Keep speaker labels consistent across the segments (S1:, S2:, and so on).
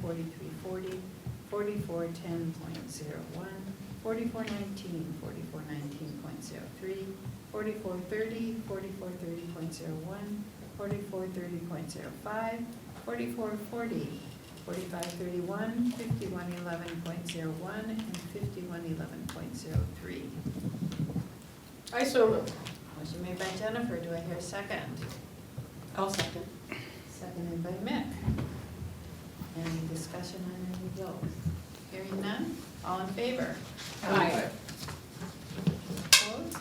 S1: forty-three forty, forty-four ten point zero one, forty-four nineteen, forty-four nineteen point zero three, forty-four thirty, forty-four thirty point zero one, forty-four thirty point zero five, forty-four forty, forty-five thirty-one, fifty-one eleven point zero one, and fifty-one eleven point zero three.
S2: I so moved.
S1: Motion made by Jennifer, do I hear a second?
S2: I'll second.
S1: Seconded by Mick. Any discussion on any of those? Hearing none, all in favor?
S2: Aye.
S1: Opposed?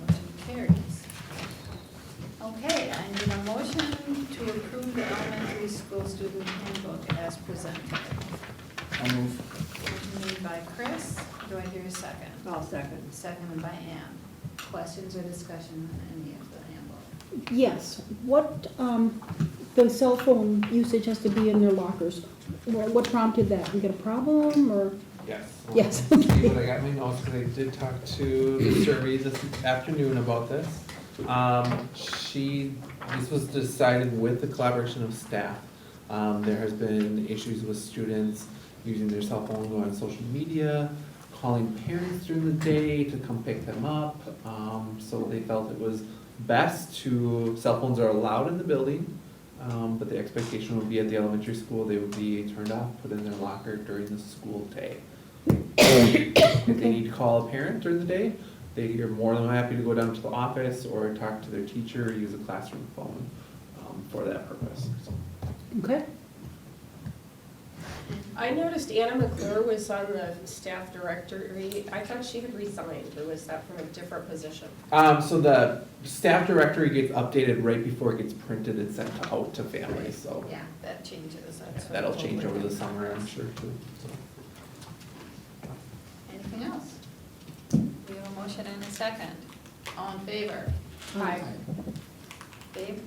S1: Motion carries. Okay, I need a motion to approve the elementary school student handbook as presented.
S3: I'll move.
S1: Motion made by Chris, do I hear a second?
S2: I'll second.
S1: Seconded by Ann. Questions or discussion on any of the handbook?
S4: Yes, what, um, the cell phone usage has to be in their lockers. Wha- What prompted that? We got a problem or,
S3: Yes.
S4: Yes.
S3: But I got my notes, because I did talk to the survey this afternoon about this. Um, she, this was decided with the collaboration of staff. Um, there has been issues with students using their cell phone, going on social media, calling parents during the day to come pick them up. Um, so they felt it was best to, cell phones are allowed in the building, um, but the expectation would be at the elementary school, they would be turned off, put in their locker during the school day. If they need to call a parent during the day, they are more than happy to go down to the office or talk to their teacher, or use a classroom phone, um, for that purpose, so.
S4: okay?
S2: I noticed Anna McClure was on the staff directory. I thought she had resigned, or was that from a different position?
S3: Um, so the staff directory gets updated right before it gets printed and sent out to families, so
S1: Yeah, that changes, that's. what
S3: that'll
S1: we'll
S3: change over
S1: work
S3: the
S1: on.
S3: summer, I'm sure, too, so.
S1: Anything else? We have a motion and a second. All in favor?
S2: Aye.
S1: Dave?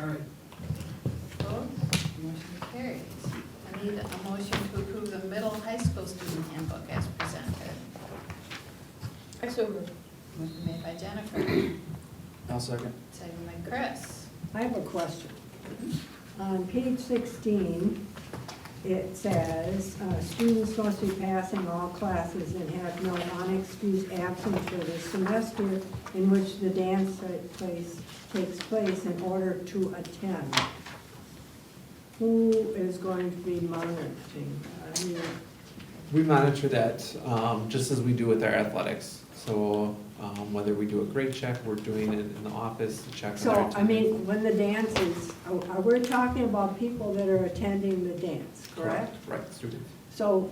S5: All right,
S1: Opposed? Motion carries. I need a motion to approve the middle high school student handbook as presented.
S2: I so moved.
S1: Motion made by Jennifer,
S5: I'll second.
S1: second by Chris.
S6: I have a question. On page 16, it says, uh, "Students must be passing all classes and have no unexcused absence for the semester in which the dance ta- place takes place in order to attend." Who is going to be monitoring? I mean,
S3: We monitor that, um, just as we do with our athletics, so, um, whether we do a grade check, we're doing it in the office to check. on
S6: So,
S3: our
S6: I mean, when the dance is, are- are we talking about people that are attending the dance, correct?
S3: Right, students.
S6: So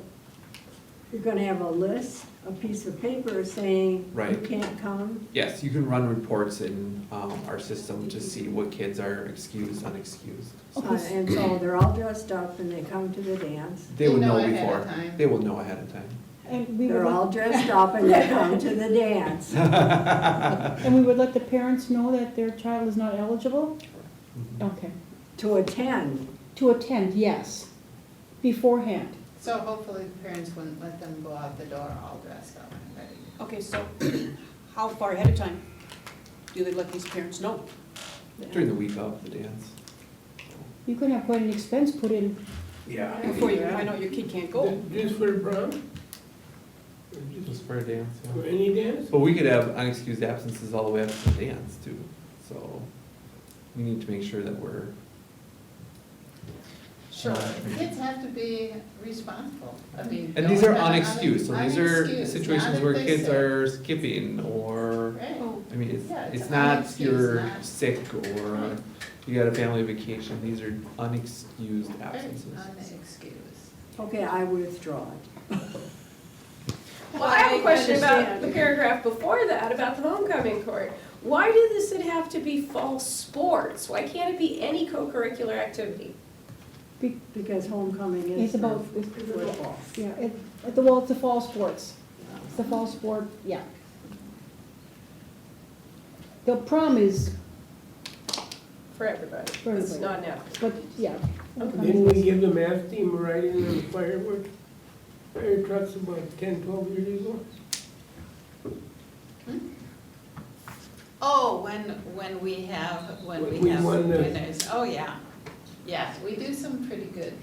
S6: you're gonna have a list, a piece of paper saying you
S3: Right.
S6: can't come?
S3: Yes, you can run reports in um, our system to see what kids are excused, unexcused.
S6: Uh, And so they're all dressed up and they come to the dance.
S3: They will
S1: They know
S3: know
S1: ahead of
S3: before.
S1: time.
S3: They will know ahead of time.
S4: And we would,
S6: They're all
S4: let-
S6: dressed up and they come to the dance.
S4: and we would let the parents know that their child is not eligible?
S3: Mhm.
S4: Okay.
S6: To attend,
S4: To attend, yes, beforehand.
S1: So hopefully the parents wouldn't let them go out the door all dressed up and ready.
S7: Okay, so how far ahead of time do they let these parents know?
S3: During the week of the dance.
S4: You can have quite an expense put in.
S3: Yeah.
S7: Before you find out your kid can't
S4: Oh.
S7: go?
S5: Just for prom? Or just
S3: Just for a dance,
S5: For
S3: yeah.
S5: any dance?
S3: But we could have unexcused absences all the way up to the dance too, so we need to make sure that we're.
S2: Sure.
S1: Kids have to be responsible. I mean.
S3: Uh, And these are
S1: don't-
S3: unexcused, so these are
S1: unexcused,
S3: situations
S1: not
S3: where
S1: if they
S3: kids
S1: say-
S3: are skipping or.
S1: Right.
S3: I mean, it's,
S1: Yeah, it's
S3: it's not
S1: unexcused,
S3: you're
S1: not-
S3: sick or
S1: Right.
S3: you got a family vacation, these are unexcused
S1: Right,
S3: absences.
S1: Unexcused.
S6: okay, I withdraw it.
S2: Well, I have a question about
S6: understand.
S2: the paragraph before that, about the homecoming court. Why does it have to be fall sports? Why can't it be any co-curricular activity?
S6: Because homecoming is
S4: It's about, it's,
S6: football.
S4: yeah, it, at the, well, it's the fall sports. It's the fall sport, yeah. The prom is,
S2: For everybody.
S4: For
S2: It's
S4: everybody.
S2: not now.
S4: but, yeah.
S5: Didn't we give the math team a ride in the fireworks? Fire trucks about ten, twelve years ago?
S1: Oh, when, when we have, when we
S5: We
S1: have
S5: won the-
S1: winners, oh, yeah. Yes, we do some pretty good